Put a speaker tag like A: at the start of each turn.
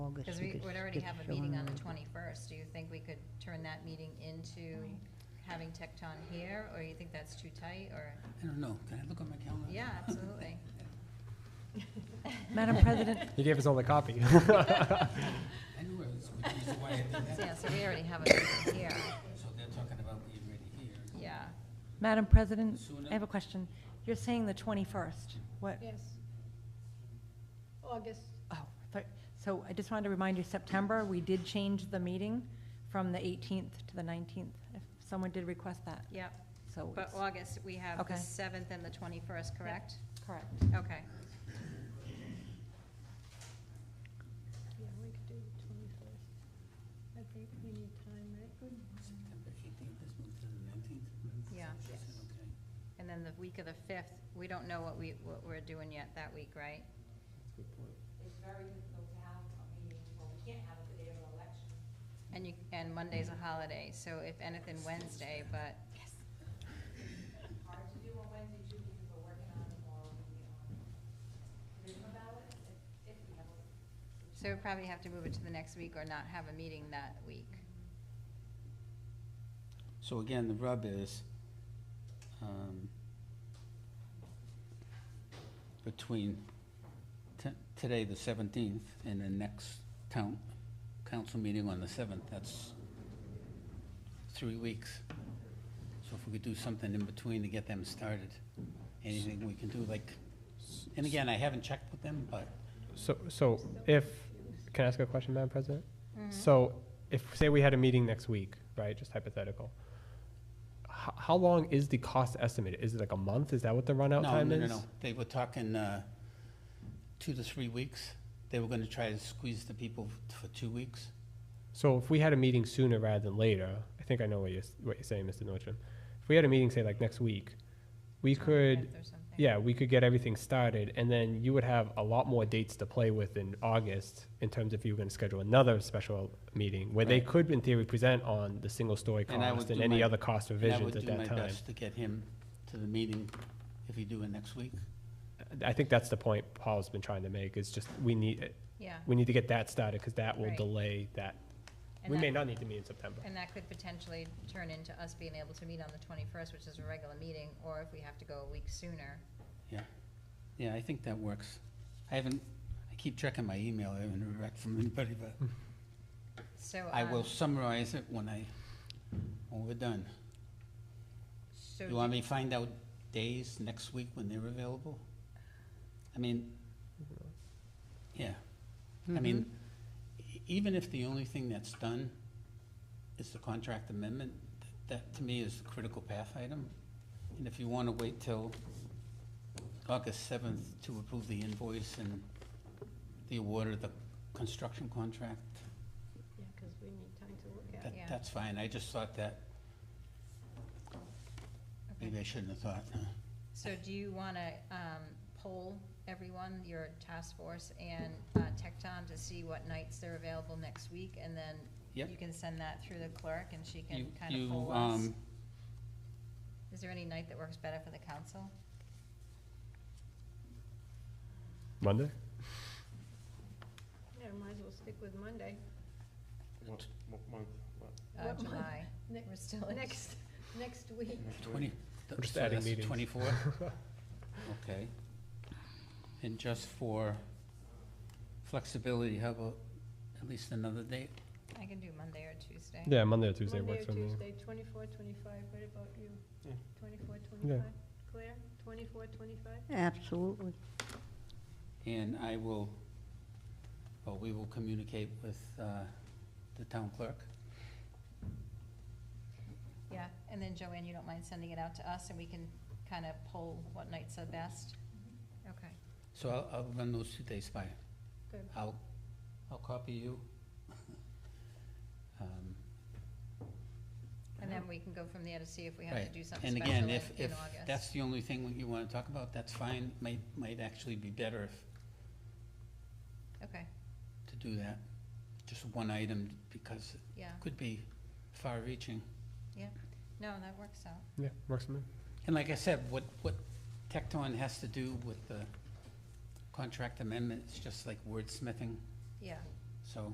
A: would already have a meeting on the twenty-first, do you think we could turn that meeting into having Tecton here, or you think that's too tight, or,
B: I don't know, can I look at my calendar?
A: yeah, absolutely.
C: Madam President,
D: You gave us all the copy.
B: I knew it was, which is why I did
A: So, Yeah,
B: that.
A: so we already have a meeting here,
B: So they're talking about being ready here.
A: yeah.
C: Madam President,
B: Sooner?
C: I have a question. You're saying the 21st. What,
E: Yes. August,
C: oh, I thought- so I just wanted to remind you, September, we did change the meeting from the 18th to the 19th. If Someone did request that,
A: Yep,
C: so
A: but
C: it's,
A: August, we have the
C: Okay.
A: seventh and the twenty-first, correct?
C: correct.
A: Okay,
E: yeah, we could do the twenty-first. I think we need time, right? Good.
B: September eighteenth, let's move to the nineteenth.
A: Yeah.
B: She said, okay.
A: and then the week of the fifth, we don't know what we, what we're doing yet that week, right?
F: It's very difficult to have a meeting, well, we can't have it the day of an election.
A: And you, and Monday's a holiday, so if anything, Wednesday, but
F: Hard to do on Wednesday too, because we're working on it all, we, um, written about it, if, if we have a
A: So we probably have to move it to the next week or not have a meeting that week.
B: So again, the rub is, um, between t- today, the seventeenth, and the next town, council meeting on the seventh, that's three weeks. So if we could do something in between to get them started, anything we can do, like, and again, I haven't checked with them, but
D: So, so if, can I ask a question, Madam President?
B: Mm-hmm.
D: So if, say we had a meeting next week, right, just hypothetical, how, how long is the cost estimate? Is it like a month? Is that what the runout
B: No,
D: time
B: no,
D: is?
B: no, no. They were talking uh, two to three weeks. They were going to try to squeeze the people f- for two weeks.
D: So if we had a meeting sooner rather than later, I think I know what you're, s- what you're saying, Mr. Nordstrom. If we had a meeting, say like next week, we could,
A: Or something.
D: yeah, we could get everything started and then you would have a lot more dates to play with in August in terms if you were gonna schedule another special meeting where they
B: Right.
D: could in theory present on the single story
B: And I would
D: cost and
B: do
D: any
B: my-
D: other cost revisions at
B: And I
D: that
B: would do my
D: time.
B: best to get him to the meeting if you do it next week.
D: I think that's the point Paul's been trying to make is just we need,
A: Yeah,
D: we need to get that started because that will
A: Right.
D: delay that.
A: And
D: We may
A: that-
D: not need to meet in September.
A: and that could potentially turn into us being able to meet on the twenty-first, which is a regular meeting, or if we have to go a week sooner.
B: Yeah. Yeah, I think that works. I haven't, I keep checking my email. I haven't heard back from anybody, but
A: So.
B: I will
A: um,
B: summarize it when I, when we're done.
A: So,
B: You want me to find out days next week when they're available? I mean, yeah. I mean,
A: Mm-hmm.
B: e- even if the only thing that's done is the contract amendment, th- that to me is the critical path item. And if you want to wait till August seventh to approve the invoice and the award of the construction contract,
E: Yeah, because we need time to look at it.
B: that,
A: Yeah.
B: that's fine. I just thought that,
A: okay.
B: maybe I shouldn't have thought. huh?
A: So do you wanna, um, poll everyone, your task force and, uh, Tecton to see what nights they're available next week? And then
B: Yep.
A: you can send that through the clerk and she
B: You-
A: can kind
B: you,
A: of poll us.
B: um,
A: Is there any night that works better for the council?
D: Monday?
E: Yeah, might as well stick with Monday.
G: What, what month? What?
A: Uh,
E: What month?
A: July,
E: Ne-
A: we're still in.
E: Next, next week.
G: Next week?
B: Twenty.
D: We're just adding meetings.
B: Twenty-four? Okay. And just for flexibility, how about at least another date?
A: I can do Monday or Tuesday.
D: Yeah, Monday or Tuesday
E: Monday
D: works
E: or
D: for me.
E: Tuesday, twenty-four, twenty-five, what about you?
G: Yeah.
E: Twenty-four, twenty-five? Claire, twenty-four, twenty-five?
H: Absolutely.
B: And I will, well, we will communicate with uh, the town clerk.
A: Yeah, and then Joanne, you don't mind sending it out to us and we can kind of poll what nights are best? Okay,
B: So I'll, I'll run those two days by.
E: Good.
B: I'll, I'll copy you. Um,
A: and then we can go from there to see if we have to
B: Right.
A: do something
B: And
A: special in in
B: again,
A: August.
B: if, if that's the only thing you want to talk about, that's fine. Might, might actually be better if
A: Okay,
B: to do that. Just one item, because it
A: yeah,
B: could be far-reaching.
A: no, that works out.
D: Yeah, works for me.
B: And like I said, what, what Tecton has to do with the contract amendment, it's just like wordsmithing.
A: Yeah,